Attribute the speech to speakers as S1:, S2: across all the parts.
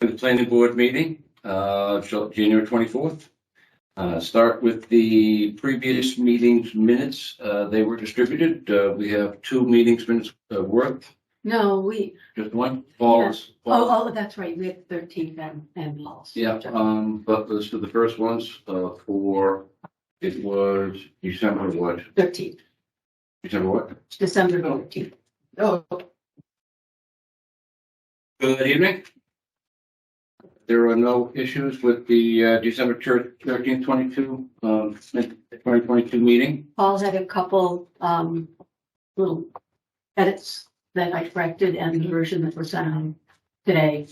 S1: the planning board meeting, uh, so January twenty-fourth. Uh, start with the previous meetings minutes. Uh, they were distributed. Uh, we have two meetings minutes uh, worth,
S2: No, we,
S1: just one, Paul's. Paul's.
S2: oh, oh, that's right, we had thirteenth and, and Paul's.
S1: Yeah, um, but those are the first ones, uh, for, it was December what?
S2: Thirteenth,
S1: December what?
S2: December thirteenth. Oh,
S1: Good evening. There are no issues with the uh, December thirteenth, twenty-two, um, twenty twenty-two meeting.
S2: Paul's had a couple, um, little edits that I corrected and
S1: Mm-hmm.
S2: the version that was on today,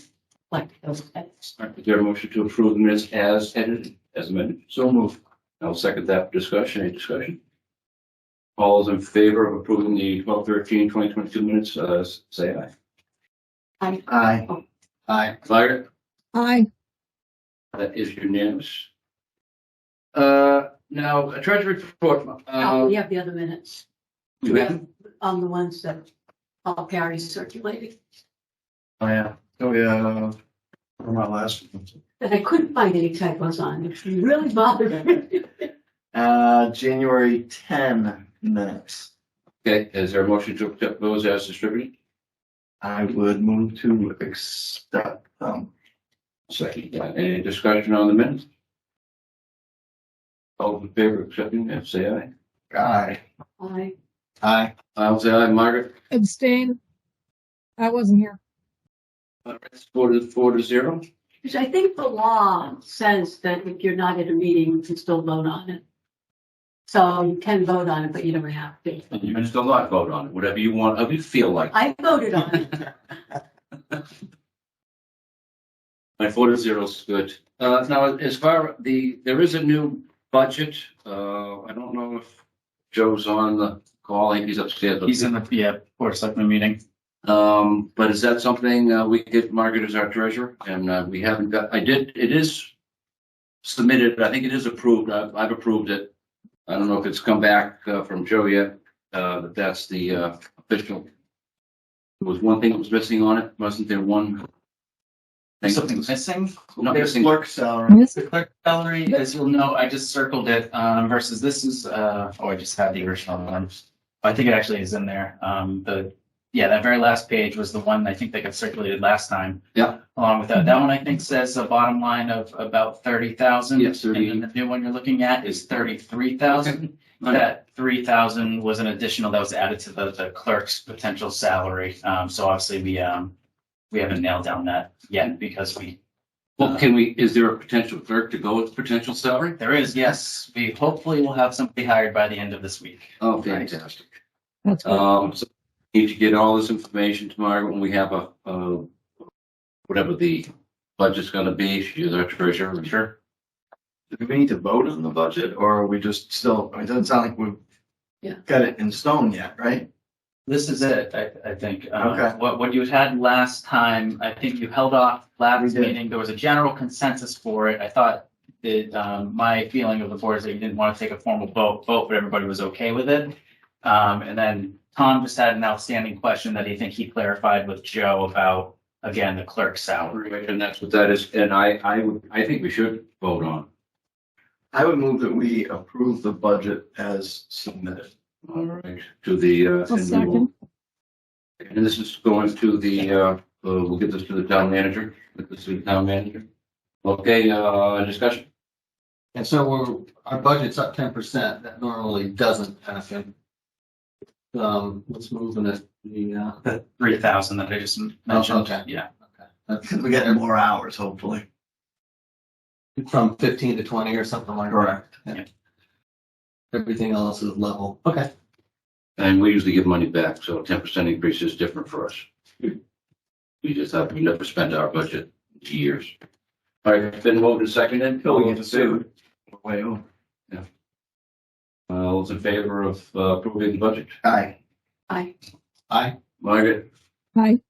S2: like those edits.
S1: All right, Uh, Is there a motion to approve the minutes as edited, as amended? So moved. I'll second that discussion, any discussion? All those in favor of approving the twelve thirteen, twenty twenty-two minutes, uh, s- say aye.
S2: I,
S3: Aye.
S1: Aye. Fire.
S4: Aye.
S1: That is unanimous. Uh, now, a treasury report,
S2: oh,
S1: uh,
S2: we have the other minutes. Um,
S1: you have,
S2: On the ones that Paul Perry circulated,
S3: Oh, yeah. Oh, yeah. For my last. one.
S2: that I couldn't find any typos on, it really bothered me.
S3: Uh, January ten minutes.
S1: okay, is there a motion to accept those as distributed?
S3: I would move to accept them.
S1: Second. Uh, Any discussion on the minutes? All in favor of accepting, it, say aye.
S3: Aye.
S2: I,
S3: Aye.
S1: I'll say aye, Margaret,
S4: Abstain. I wasn't here.
S1: Uh, it's four to, four to zero.
S2: Because I think the law says that if you're not at a meeting, you can still vote on it. So you can vote on it, but you don't have to.
S1: And you can still not vote on it, whatever you want, however you feel like.
S2: I voted on it.
S1: My four to zero is good. Uh, now, as far the, there is a new budget. Uh, I don't know if Joe's on the call. I think He's upstairs.
S5: He's in the, yeah, board of selectmen meeting.
S1: Um, but is that something, uh, we could, Margaret is our treasurer and, uh, we haven't got, I did, it is submitted, I think it is approved. I've, I've approved it. I don't know if it's come back, uh, from Joe yet, uh, but that's the, uh, official. There was one thing that was missing on it. Wasn't there one? thing that was-
S5: Something's missing.
S1: Not
S3: There's
S1: missing.
S3: clerk salary.
S4: This-
S5: The clerk salary, as you'll know, I just circled it, um, versus this is, uh, oh, I just had the original one. I think it actually is in there. Um, the, yeah, that very last page was the one I think that got circulated last time.
S1: Yeah.
S5: Along with that, that one I think says a bottom line of about thirty thousand.
S1: Yes, 30.
S5: And then the new one you're looking at is thirty-three thousand. That three thousand was an additional that was added to the, the clerk's potential salary. Um, so obviously we, um, we haven't nailed down that yet because we
S1: Well, can we, is there a potential clerk to go with potential salary?
S5: There is, yes. We hopefully will have somebody hired by the end of this week.
S1: Oh, fantastic.
S4: That's good.
S1: Um, so need to get all this information tomorrow when we have a, uh, whatever the budget's gonna be, she's our treasurer.
S5: Sure.
S3: Do we need to vote on the budget or are we just still, I mean, it doesn't sound like we've
S2: Yeah.
S3: got it in stone yet, right?
S5: This is it, I, I think. Uh,
S3: Okay.
S5: What, what you had last time, I think you held off
S3: We
S5: last
S3: did.
S5: meeting. There was a general consensus for it. I thought that, um, my feeling of the board is that you didn't want to take a formal vote, vote, but everybody was okay with it. Um, and then Tom just had an outstanding question that he think he clarified with Joe about, again, the clerk's salary.
S1: And that's what that is, and I, I, would- I think we should vote on.
S3: I would move that we approve the budget as submitted.
S1: All right, to the, uh.
S4: I'll
S1: and we will-
S4: second.
S1: And this is going to the, uh, uh, we'll get this to the town manager, get this to the town manager. Okay, uh, discussion,
S6: And so we're, our budget's up ten percent. That normally doesn't happen. Um, what's moving it? The, uh,
S5: The three thousand that I just mentioned,
S6: okay.
S5: yeah.
S3: Because we get more hours, hopefully.
S6: from fifteen to twenty or something like that.
S3: Correct.
S6: Everything else is level. Okay.
S1: and we usually give money back, so ten percent increase is different for us. We just have, we never spend our budget in years. All right, it's been moved and seconded.
S3: Till we get sued. Way over.
S1: Uh, all those in favor of uh, approving the budget?
S3: Aye.
S2: I,
S6: Aye.
S1: Margaret?
S4: Aye.